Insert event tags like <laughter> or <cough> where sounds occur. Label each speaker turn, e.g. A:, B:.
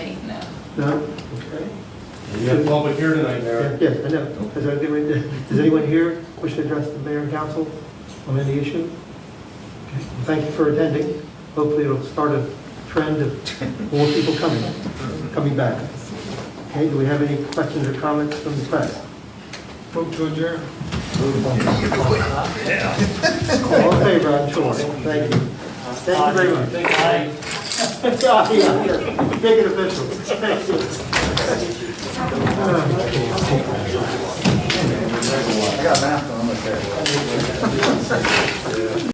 A: No?
B: Okay. We have public here tonight, Mayor.
A: Yes, I know. Is there anyone, does anyone here wish to address the mayor and council on any issue? Okay. Thank you for attending. Hopefully it'll start a trend of more people coming, coming back. Okay, do we have any questions or comments from the press?
C: Vote to adjourn.
A: All in favor, I'm sure. Thank you. Thank you very much. <laughs> Yeah, yeah, yeah. Make it official. Thank you.